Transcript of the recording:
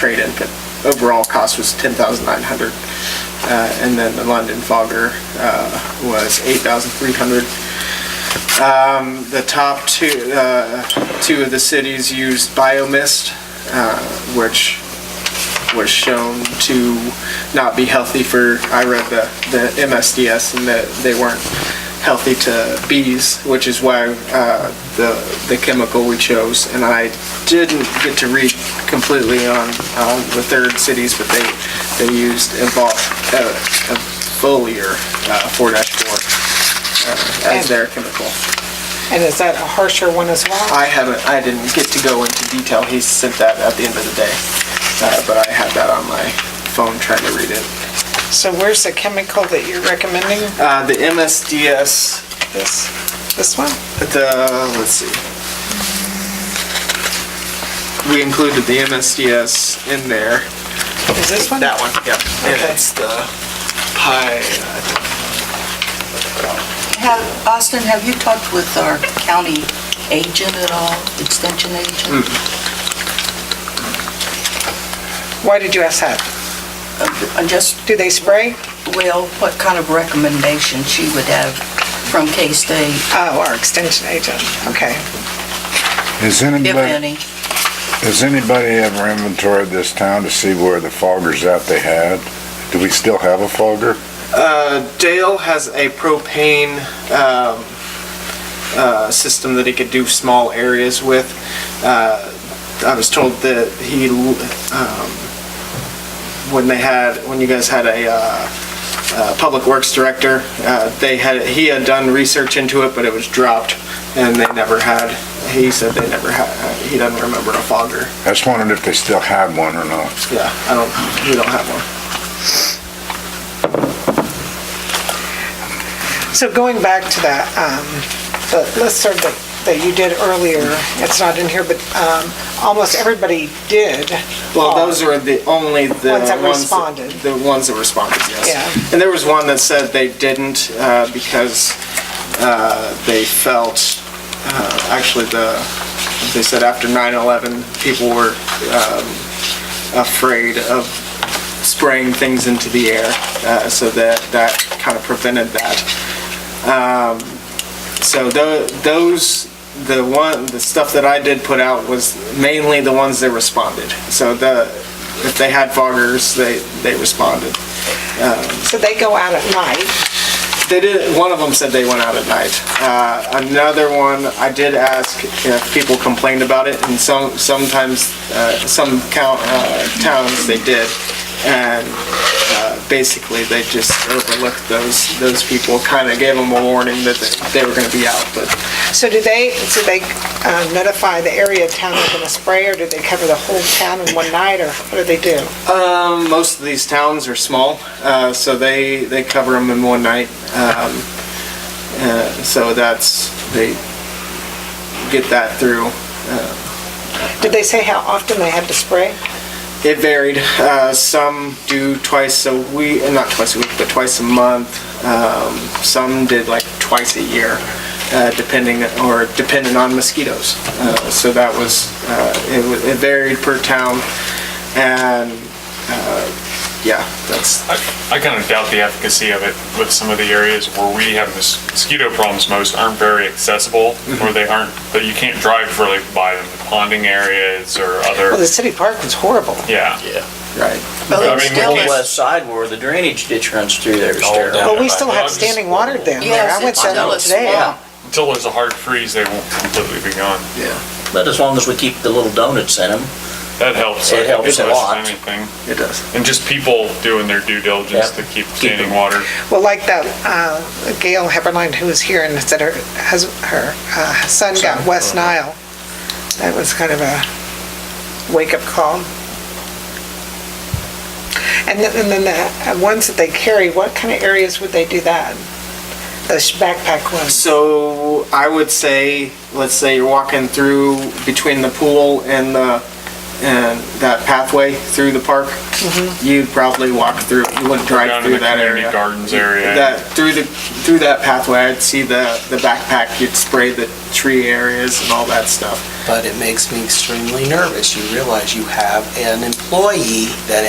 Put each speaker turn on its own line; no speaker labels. trade-in, but overall cost was ten thousand nine hundred. Uh, and then the London Fogger, uh, was eight thousand three hundred. Um, the top two, uh, two of the cities used biomist, uh, which was shown to not be healthy for, I read the, the MSDS and that they weren't healthy to bees, which is why uh, the, the chemical we chose. And I didn't get to read completely on, on the third cities, but they, they used evol, uh, foliar uh, 4-4 uh, as their chemical.
And is that a harsher one as well?
I haven't, I didn't get to go into detail. He sent that at the end of the day. Uh, But I had that on my phone trying to read it.
So where's the chemical that you're recommending
Uh, The MSDS,
this, this one?
the, uh, let's see. We included the MSDS in there.
Is this one?
That one, yeah. And
Okay.
it's the pi,
Have, Austin, have you talked with our county agent at all, extension agent?
Why did you ask that?
Uh, Just,
Do they spray?
well, what kind of recommendation she would have from K-State,
Oh, our extension agent, okay.
Has
if
anybody,
any?
has anybody ever inventoried this town to see where the foggers out they had? Do we still have a fogger?
Uh, Dale has a propane um, uh, system that he could do small areas with. Uh, I was told that he, um, when they had, when you guys had a uh, uh, Public Works Director, uh, they had, he had done research into it, but it was dropped, and they never had, he said they never had, he doesn't remember a fogger.
I just wondered if they still had one or not.
Yeah, I don't, we don't have one.
So going back to that, um, the listserv that, that you did earlier, it's not in here, but, um, almost everybody did.
Well,
fall.
those are the only the
Ones that responded.
The ones that responded, yes.
Yeah.
And there was one that said they didn't uh, because uh, they felt, uh, actually, the they said after 9/11, people were um, afraid of spraying things into the air, uh, so that that kind of prevented that. Um, So tho- those, the one, the stuff that I did put out was mainly the ones that responded. So the, if they had foggers, they, they responded.
So they go out at night,
They did, one of them said they went out at night. Uh, another one, I did ask if people complained about it, and some, sometimes, uh, some count, uh, towns, they did. And, uh, basically, they just overlooked those, those people, kinda gave them a warning that they- they were gonna be out, but
so do they, do they um, notify the area of town they're gonna spray, or do they cover the whole town in one night, or what do they do?
Um, most of these towns are small, uh, so they, they cover them in one night. Um, uh, so that's, they get that through.
Did they say how often they had to spray?
It varied. Uh, some do twice a week, uh, not twice a week, but twice a month. Um, some did like twice a year, uh, depending or dependent on mosquitoes. Uh, so that was uh, it, wa- it varied per town, and uh, yeah, that's
I kind of doubt the efficacy of it with some of the areas where we have mos- mosquito problems most aren't very accessible, or they aren't, but you can't drive really by them, ponding areas or
Well, the
other,
city park was horrible.
yeah.
Yeah.
right.
I
Well, it's
mean, the
still,
whole west side where the drainage ditch runs through there is
All
terrible.
down.
But we
Yeah,
still
but
have
I'm just-
standing water down there.
yes,
I went
it's
down
still
there
a
today.
swamp.
Until there's a hard freeze, they won't completely be gone.
But as long as we keep the little donuts in them,
That helps.
It
I think,
helps
as
a
much as
lot.
Anything.
It does.
And just people doing their due diligence
Yep.
to keep
Keep
standing
them.
water.
Well, like that uh, Gail Heberlein who was here and said her, hus- her uh, son got West
Uh-huh.
Nile. That was kind of a wake-up call. And then, and then the uh, ones that they carry, what kind of areas would they do that? Those backpack ones?
So I would say, let's say you're walking through between the pool and the and that pathway through the park, you'd probably walk through, you wouldn't drive
Down in
through
the
that area.
community gardens area.
That, through the, through that pathway, I'd see the, the backpack, you'd spray the tree areas and all that stuff.
But it makes me extremely nervous. You realize you have an employee that